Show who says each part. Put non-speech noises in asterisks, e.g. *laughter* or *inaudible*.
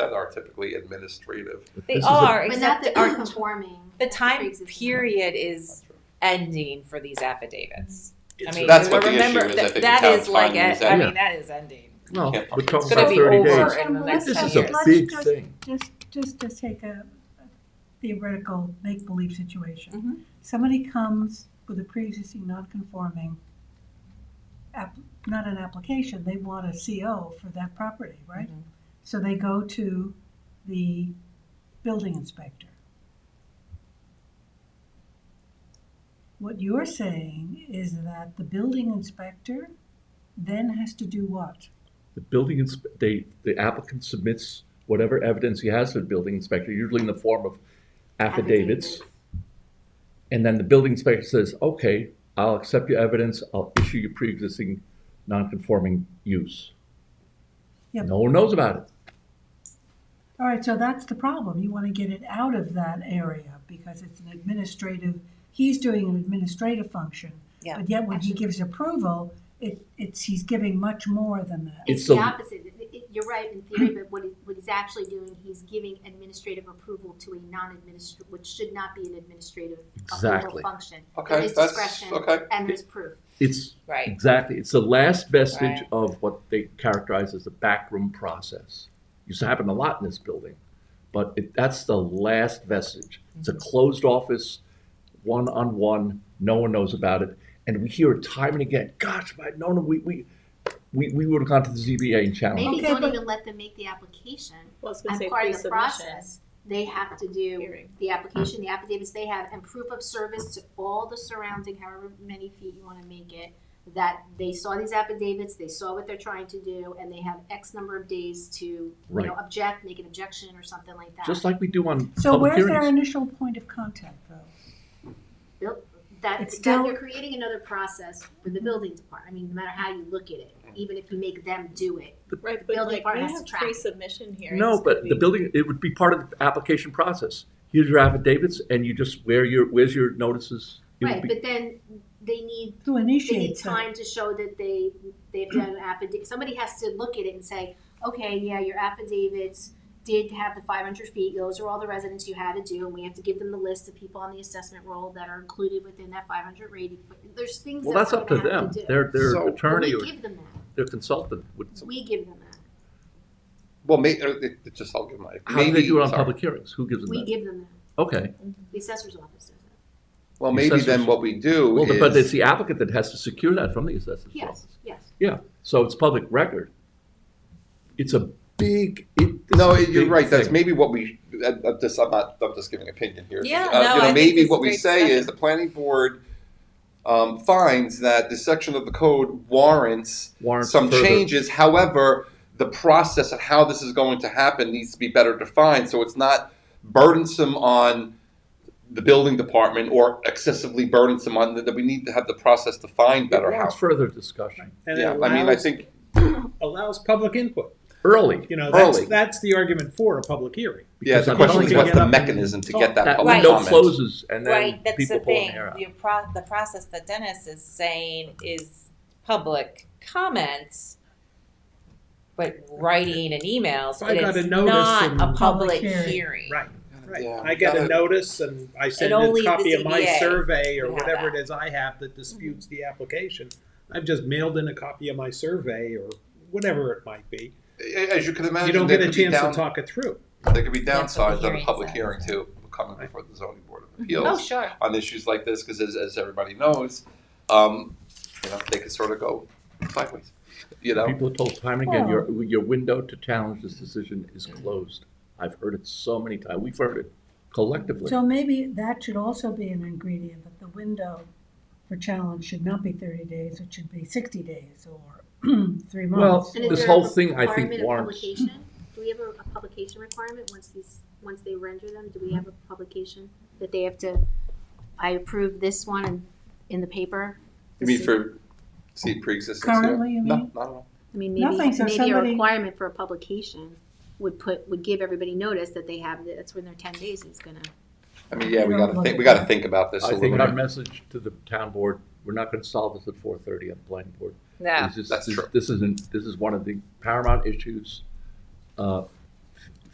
Speaker 1: that are typically administrative.
Speaker 2: They
Speaker 3: This is a-
Speaker 2: are,
Speaker 4: But not
Speaker 2: except
Speaker 4: the
Speaker 3: *laughs*
Speaker 2: the art,
Speaker 4: non-conforming.
Speaker 2: the time
Speaker 4: pre-existing.
Speaker 2: period is ending for these affidavits. I
Speaker 5: It's-
Speaker 2: mean,
Speaker 1: That's what the
Speaker 2: remember,
Speaker 1: issue is, I
Speaker 2: that-
Speaker 1: think the
Speaker 2: that
Speaker 1: town's
Speaker 2: is like,
Speaker 1: finding is
Speaker 2: a- I
Speaker 1: that-
Speaker 2: mean, that is ending.
Speaker 3: No,
Speaker 1: Yeah.
Speaker 3: we're
Speaker 2: It's
Speaker 3: talking
Speaker 2: gonna
Speaker 3: about
Speaker 2: be
Speaker 3: thirty
Speaker 2: over
Speaker 3: days.
Speaker 2: in the
Speaker 6: Well,
Speaker 2: next
Speaker 3: This
Speaker 2: ten
Speaker 3: is a
Speaker 2: years.
Speaker 3: big
Speaker 6: Let's just-
Speaker 3: thing.
Speaker 6: Just, just to take a theoretical make-believe
Speaker 2: Mhm.
Speaker 6: situation. Somebody comes with a pre-existing non-conforming, app, not an application, they want a CO for that property, right?
Speaker 2: Mhm.
Speaker 6: So they go to the building inspector. What you're saying is that the building inspector then has to do what?
Speaker 3: The building ins, they, the applicant submits whatever evidence he has to the building inspector, usually in the form of affidavits. And then the building inspector says, okay, I'll accept your evidence, I'll issue you pre-existing non-conforming use.
Speaker 6: Yep.
Speaker 3: No one knows about it.
Speaker 6: All right, so that's the problem. You want to get it out of that area because it's an administrative, he's doing an administrative function.
Speaker 2: Yeah.
Speaker 6: But yet when he gives approval, it, it's, he's giving much more than that.
Speaker 3: It's
Speaker 4: It's the
Speaker 3: a-
Speaker 4: opposite. It- it- You're right in theory, but what he, what he's actually doing, he's giving administrative approval to a non-administrative, which should not be an administrative approval
Speaker 3: Exactly.
Speaker 4: function. There
Speaker 1: Okay,
Speaker 4: is
Speaker 1: that's,
Speaker 4: discretion
Speaker 1: okay.
Speaker 4: and there's proof.
Speaker 3: It's,
Speaker 2: Right,
Speaker 3: exactly, it's the last vestige
Speaker 2: Right.
Speaker 3: of what they characterize as the backroom process. Used to happen a lot in this building, but it, that's the last vestige. It's
Speaker 4: Mm-hmm.
Speaker 3: a closed office, one-on-one, no one knows about it. And we hear it time and again, gosh, if I'd known, we, we, we, we would have gone to the ZBA and challenged. it."
Speaker 4: Maybe
Speaker 6: Okay,
Speaker 4: don't
Speaker 6: but-
Speaker 4: even let them make the application.
Speaker 7: Well, it's gonna
Speaker 4: I'm
Speaker 7: say
Speaker 4: part of the
Speaker 7: pre-submission.
Speaker 4: process. They have to do
Speaker 7: Hearing.
Speaker 4: the application, the affidavits they have, and proof of service to all the surrounding, however many feet you wanna make it, that they saw these affidavits, they saw what they're trying to do, and they have X number of days to, you know,
Speaker 3: Right.
Speaker 4: object, make an objection or something like that.
Speaker 3: Just like we do on
Speaker 6: So
Speaker 3: public
Speaker 6: where's their
Speaker 3: hearings.
Speaker 6: initial point of contact though?
Speaker 4: Nope, That,
Speaker 6: It's
Speaker 4: that
Speaker 6: still- Mm-hmm.
Speaker 4: you're creating another process for the building department, I mean, no matter how you look at it, even if you make them do it.
Speaker 7: Right, but
Speaker 4: Building
Speaker 7: like we
Speaker 4: part has
Speaker 7: have
Speaker 4: to track.
Speaker 7: pre-submission hearings.
Speaker 3: No, but
Speaker 7: could
Speaker 3: the
Speaker 7: we-
Speaker 3: building, it would be part of the application process. Here's your affidavits and you just, where your, where's your notices? It would
Speaker 4: Right,
Speaker 3: be-
Speaker 4: but then they need
Speaker 6: Who
Speaker 4: they need
Speaker 6: initiates that?
Speaker 4: time to show that they, they've done an affidavit, somebody has to look at it and say, okay, yeah, your affidavits did have the five hundred feet, those are all the residents you had to do, and we have to give them the list of people on the assessment roll that are included within that five hundred rating, but there's things
Speaker 3: Well,
Speaker 4: that
Speaker 3: that's
Speaker 4: we're
Speaker 3: up to
Speaker 4: gonna
Speaker 3: them.
Speaker 4: have to do.
Speaker 3: Their, their
Speaker 1: So-
Speaker 3: attorney or
Speaker 4: We give them that,
Speaker 3: their consultant would,
Speaker 4: we give them that,
Speaker 1: Well, may, uh, it, it just, I'll give my,
Speaker 3: how do they
Speaker 1: maybe-
Speaker 3: do it on
Speaker 1: sorry.
Speaker 3: public hearings? Who gives them
Speaker 4: we
Speaker 3: that?
Speaker 4: give them that,
Speaker 3: Okay,
Speaker 4: the assessor's office does that,
Speaker 1: Well, maybe then
Speaker 3: Assessors.
Speaker 1: what we do
Speaker 3: well, but it's
Speaker 1: is,
Speaker 3: the applicant that has to secure that from the assessor's
Speaker 4: yes,
Speaker 3: office.
Speaker 4: yes.
Speaker 3: Yeah, so it's public record. It's a big, it. this
Speaker 1: no,
Speaker 3: is a
Speaker 1: you're
Speaker 3: big
Speaker 1: right, that's
Speaker 3: thing.
Speaker 1: maybe what we, I- I'm just, I'm not, I'm just giving opinion here.
Speaker 2: Yeah,
Speaker 1: Uh,
Speaker 2: no,
Speaker 1: you know,
Speaker 2: I think
Speaker 1: Maybe
Speaker 2: this is
Speaker 1: what we
Speaker 2: great
Speaker 1: say is
Speaker 2: discussion.
Speaker 1: the planning board, um, finds that this section of the code warrants
Speaker 3: Warrants
Speaker 1: some
Speaker 3: further-
Speaker 1: changes. However, the process of how this is going to happen needs to be better defined so it's not burdensome on the building department or excessively burdensome on the, that we need to have the process defined better.
Speaker 3: Warrants
Speaker 1: How?
Speaker 3: further discussion,
Speaker 8: And it
Speaker 1: Yeah, I mean, I
Speaker 8: allows-
Speaker 1: think
Speaker 8: Allows public input,
Speaker 3: early.
Speaker 8: you know, that's,
Speaker 1: Early.
Speaker 8: that's the argument for a public hearing.
Speaker 1: yeah.
Speaker 3: because
Speaker 1: The
Speaker 3: I'm
Speaker 1: question
Speaker 8: only
Speaker 1: is,
Speaker 8: gonna
Speaker 1: what's
Speaker 8: get
Speaker 1: the
Speaker 8: up and
Speaker 1: mechanism to get
Speaker 8: talk.
Speaker 1: that
Speaker 3: That
Speaker 1: public
Speaker 2: Right.
Speaker 3: window
Speaker 1: comment?
Speaker 3: closes and then
Speaker 2: right, that's the
Speaker 3: people pull their
Speaker 2: thing,
Speaker 3: hair out.
Speaker 2: the pro, the process that Dennis is saying is public comments, but writing an email, so
Speaker 8: I got
Speaker 2: it's
Speaker 8: a notice
Speaker 2: not
Speaker 8: and-
Speaker 2: a public
Speaker 6: Public hearing.
Speaker 2: hearing.
Speaker 8: Right. Right,
Speaker 1: Yeah,
Speaker 8: I get
Speaker 1: gotta-
Speaker 8: a notice and I send
Speaker 2: only
Speaker 8: a
Speaker 2: the
Speaker 8: copy of my
Speaker 2: ZBA
Speaker 8: survey or
Speaker 2: would have
Speaker 8: whatever it
Speaker 2: that.
Speaker 8: is I have that disputes the application. I've just mailed in a copy of my survey or whatever it might be.
Speaker 1: As you can imagine,
Speaker 8: You don't
Speaker 1: there
Speaker 8: get a
Speaker 1: could be
Speaker 8: chance to
Speaker 1: down-
Speaker 8: talk it through.
Speaker 1: There could be
Speaker 2: Yeah, it's
Speaker 1: downsides on a
Speaker 2: hearing
Speaker 1: public
Speaker 2: side.
Speaker 1: hearing too, coming before the zoning board of appeals.
Speaker 2: Oh, sure,
Speaker 1: on issues like this because, as, as everybody knows, um, you know, they can sort of go sideways. You know,
Speaker 3: People are told time and again, your, your window to challenge this decision is closed. I've heard it so many times, we've heard it collectively.
Speaker 6: So maybe that should also be an ingredient, that the window for challenge should not be thirty days, it should be sixty days or *clears throat* three
Speaker 3: Well,
Speaker 6: months.
Speaker 4: And is
Speaker 3: This
Speaker 4: there
Speaker 3: whole
Speaker 4: a
Speaker 3: thing, I think,
Speaker 4: requirement of
Speaker 3: warrants-
Speaker 4: publication? Do we have a, a publication requirement once these, once they render them? Do we have a publication that they have to, I approve this one in, in the paper?
Speaker 1: you mean
Speaker 4: This-
Speaker 1: for see pre-existing?
Speaker 6: Currently, you
Speaker 1: no,
Speaker 6: mean?
Speaker 1: not at all.
Speaker 4: I mean, maybe,
Speaker 6: Nothing, so
Speaker 4: maybe a
Speaker 6: somebody-
Speaker 4: requirement for a publication would put, would give everybody notice that they have, it. that's when their ten days is gonna.
Speaker 1: I mean, yeah, we
Speaker 6: No,
Speaker 1: gotta
Speaker 6: no.
Speaker 1: think. We gotta think about this a
Speaker 3: I
Speaker 1: little
Speaker 3: think our
Speaker 1: bit.
Speaker 3: message to the town board, we're not gonna solve this at four thirty on the planning board.
Speaker 2: no,
Speaker 3: This is-
Speaker 1: That's
Speaker 3: this-
Speaker 1: true.
Speaker 3: This isn't, this is one of the paramount issues. Uh,